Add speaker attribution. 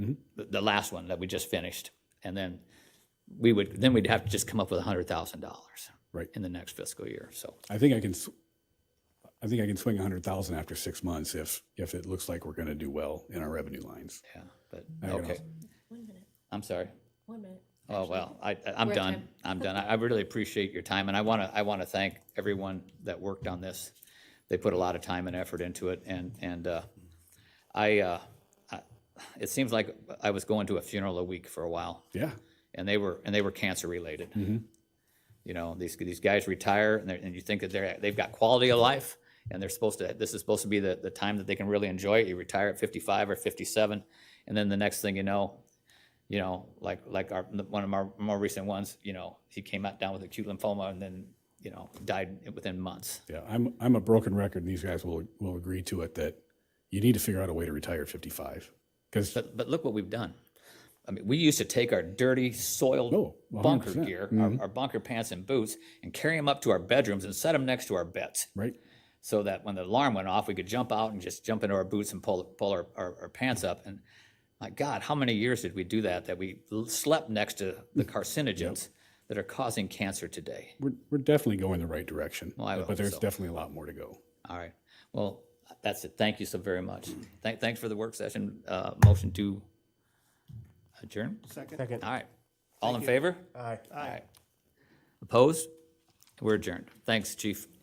Speaker 1: Mm-hmm.
Speaker 2: the last one that we just finished. And then we would, then we'd have to just come up with a hundred thousand dollars.
Speaker 1: Right.
Speaker 2: In the next fiscal year, so.
Speaker 1: I think I can, s- I think I can swing a hundred thousand after six months if, if it looks like we're going to do well in our revenue lines.
Speaker 2: Yeah, but,
Speaker 1: I don't know.
Speaker 2: okay,
Speaker 3: One minute,
Speaker 2: I'm sorry.
Speaker 3: one minute.
Speaker 2: Oh, well, I, I- I'm
Speaker 3: we're at
Speaker 2: done.
Speaker 3: time.
Speaker 2: I'm done. I I really appreciate your time, and I want to, I want to thank everyone that worked on this. They put a lot of time and effort into it, and, and uh, I, uh, I- it seems like I was going to a funeral a week for a while,
Speaker 1: Yeah.
Speaker 2: and they were, and they were cancer-related. You know, these, these guys retire, and they're, and you think that they're, they've got quality of life, and they're supposed to, this is supposed to be the, the time that they can really enjoy it. You retire at 55 or 57, and then the next thing you know, you know, like like our one of our more recent ones, you know, he came out down with acute lymphoma and then you know died within months.
Speaker 1: Yeah. I'm, I'm a broken record and these guys will, will agree to it that you need to figure out a way to retire at 55. Cause
Speaker 2: But but look what we've done. I mean, we used to take our dirty, soiled
Speaker 1: Oh, 100%.
Speaker 2: bunker gear, our, our bunker pants and boots, and carry them up to our bedrooms and set them next to our beds,
Speaker 1: right.
Speaker 2: so that when the alarm went off, we could jump out and just jump into our boots and pull pull our, our, our pants up. And my God, how many years did we do that? That we l- slept next to the carcinogens that are causing cancer today.
Speaker 1: We're, we're definitely going the right direction,
Speaker 2: I
Speaker 1: but
Speaker 2: hope
Speaker 1: there's
Speaker 2: so.
Speaker 1: definitely a lot more to go.
Speaker 2: All right. Well, that's it. Thank you so very much. Thank, thanks for the work session. Uh, motion to adjourn?
Speaker 4: Second.
Speaker 2: All right. All in favor?
Speaker 4: Aye.
Speaker 2: All right. Opposed? We're adjourned. Thanks, chief.